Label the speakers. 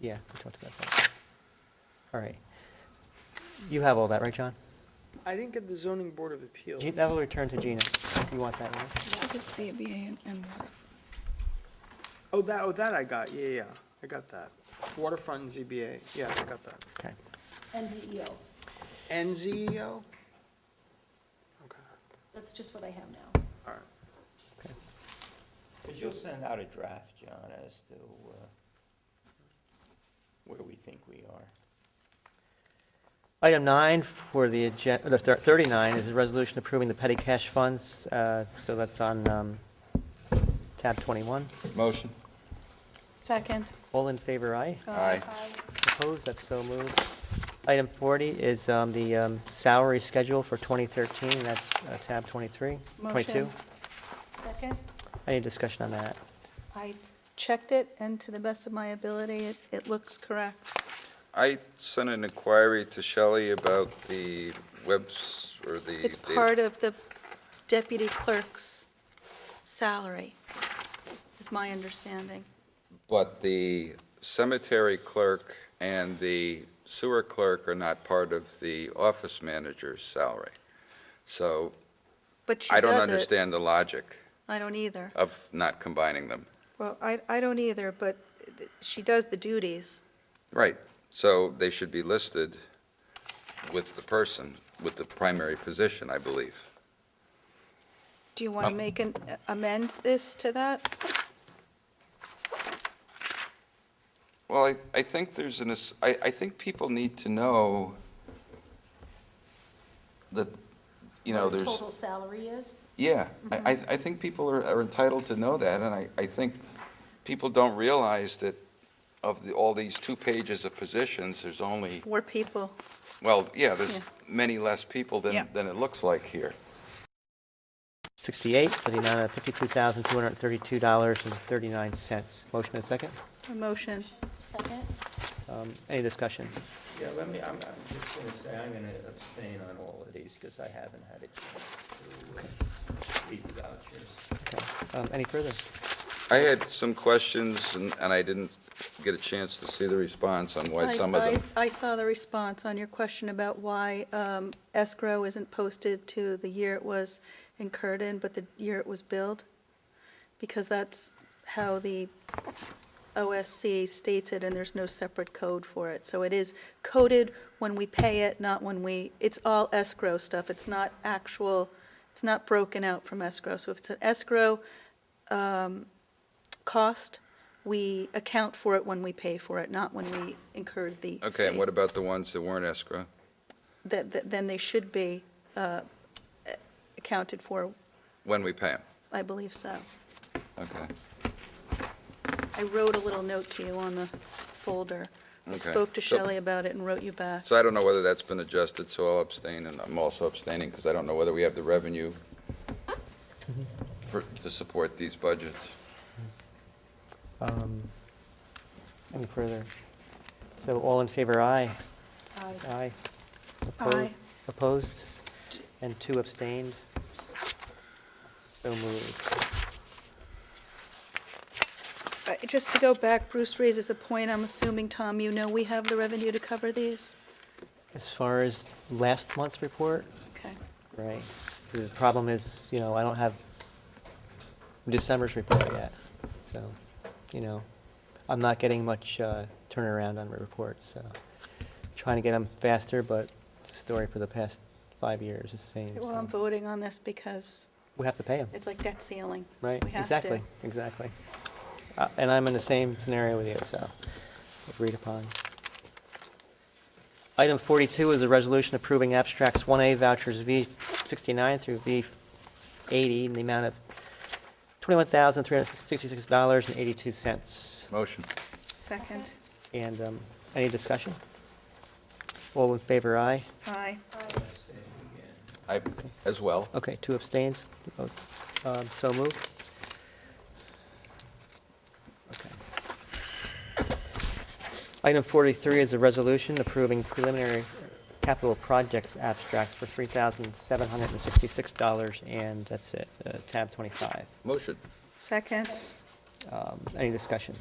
Speaker 1: Yeah, we talked about that. All right. You have all that, right, John?
Speaker 2: I didn't get the zoning board of appeals.
Speaker 1: Ge- That will return to Gina. You want that, right?
Speaker 3: I could see it being in
Speaker 2: Oh, that, oh, that I got, yeah, yeah, I got that. Waterfront ZBA, yeah, I got that.
Speaker 1: Okay.
Speaker 4: NZEO.
Speaker 2: NZEO? Okay,
Speaker 4: That's just what I have now.
Speaker 2: all right.
Speaker 5: Could you send out a draft, John, as to uh, where we think we are?
Speaker 1: Item nine for the agenda, 39 is a resolution approving the petty cash funds. uh, So that's on um, tab 21.
Speaker 6: Motion?
Speaker 3: Second. Uh,
Speaker 1: All in favor, aye?
Speaker 6: Aye.
Speaker 1: Opposed, that's so moved. Item 40 is um, the um, salary schedule for 2013, that's uh, tab 23, 22.
Speaker 3: Motion.
Speaker 4: Second?
Speaker 1: Any discussion on that?
Speaker 3: I checked it, and to the best of my ability, it, it looks correct.
Speaker 6: I sent an inquiry to Shelley about the webs, or the...
Speaker 3: It's
Speaker 6: the-
Speaker 3: part of the deputy clerk's salary, is my understanding.
Speaker 6: But the cemetery clerk and the sewer clerk are not part of the office manager's salary. So
Speaker 3: But she
Speaker 6: I
Speaker 3: does it.
Speaker 6: don't understand the logic
Speaker 3: I don't either.
Speaker 6: of not combining them.
Speaker 3: Well, I, I don't either, but th- she does the duties.
Speaker 6: Right, so they should be listed with the person, with the primary position, I believe.
Speaker 3: Do you want
Speaker 6: Uh,
Speaker 3: to make an, amend this to that?
Speaker 6: Well, I, I think there's an, ass- I, I think people need to know that, you know,
Speaker 4: What the
Speaker 6: there's,
Speaker 4: Total salary is?
Speaker 6: yeah, I,
Speaker 3: Mm-hmm.
Speaker 6: I I think people are are entitled to know that, and I, I think people don't realize that of the, all these two pages of positions, there's only,
Speaker 3: Four people.
Speaker 6: well, yeah, there's
Speaker 3: Yeah.
Speaker 6: many less people
Speaker 3: Yeah.
Speaker 6: than, than it looks like here.
Speaker 1: 68, for the amount of $52,232.39. Motion and second.
Speaker 3: A motion.
Speaker 4: Second?
Speaker 1: Um, Any discussion?
Speaker 5: Yeah, let me, I'm, I'm just gonna say, I'm gonna abstain on all of these, because I haven't had a chance to uh, read the vouchers.
Speaker 1: Okay. Um, Any further?
Speaker 6: I had some questions, and, and I didn't get a chance to see the response on why
Speaker 3: I-
Speaker 6: some of
Speaker 3: I-
Speaker 6: them.
Speaker 3: I saw the response on your question about why um, escrow isn't posted to the year it was incurred in, but the year it was billed, because that's how the OSC states it, and there's no separate code for it. So it is coded when we pay it, not when we, it's all escrow stuff. It's not actual, it's not broken out from escrow. So if it's an escrow um, cost, we account for it when we pay for it, not when we incurred the.
Speaker 6: Okay, and
Speaker 3: fee.
Speaker 6: what about the ones that weren't escrow?
Speaker 3: That, that- then they should be uh, accounted for,
Speaker 6: When we pay them?
Speaker 3: I believe so.
Speaker 6: Okay.
Speaker 3: I wrote a little note to you on the folder. I
Speaker 6: Okay,
Speaker 3: spoke to
Speaker 6: so-
Speaker 3: Shelley about it and wrote you back.
Speaker 6: So I don't know whether that's been adjusted, so I'll abstain, and I'm also abstaining because I don't know whether we have the revenue for, to support these budgets.
Speaker 1: Um, Any further? So all in favor, aye? Aye. Opposed-
Speaker 3: Aye.
Speaker 1: Opposed? And two abstained? So moved.
Speaker 3: Uh, Just to go back, Bruce raises a point, I'm assuming, Tom, you know we have the revenue to cover these?
Speaker 1: As far as last month's report,
Speaker 3: Okay,
Speaker 1: right, the problem is, you know, I don't have December's report yet, so, you know, I'm not getting much uh, turnaround on my reports, so. Trying to get them faster, but it's a story for the past five years, it's the same.
Speaker 3: well, I'm
Speaker 1: so.
Speaker 3: voting on this because
Speaker 1: We have to pay them.
Speaker 3: it's like debt ceiling.
Speaker 1: Right,
Speaker 3: We have to.
Speaker 1: exactly, exactly. Uh, And I'm in the same scenario with you, so agreed upon. Item 42 is a resolution approving abstracts 1A vouchers V69 through V80 in the amount of $21,366.82.
Speaker 6: Motion.
Speaker 3: Second.
Speaker 1: And um, any discussion? All in favor, aye?
Speaker 3: Aye.
Speaker 6: I, as well.
Speaker 1: Okay, two abstains, both, um, so moved. Okay. Item forty-three is a resolution approving preliminary capital projects abstracts for three thousand seven hundred and sixty-six dollars, and that's it, uh, tab twenty-five.
Speaker 6: Motion.
Speaker 3: Second.
Speaker 1: Um, any discussion?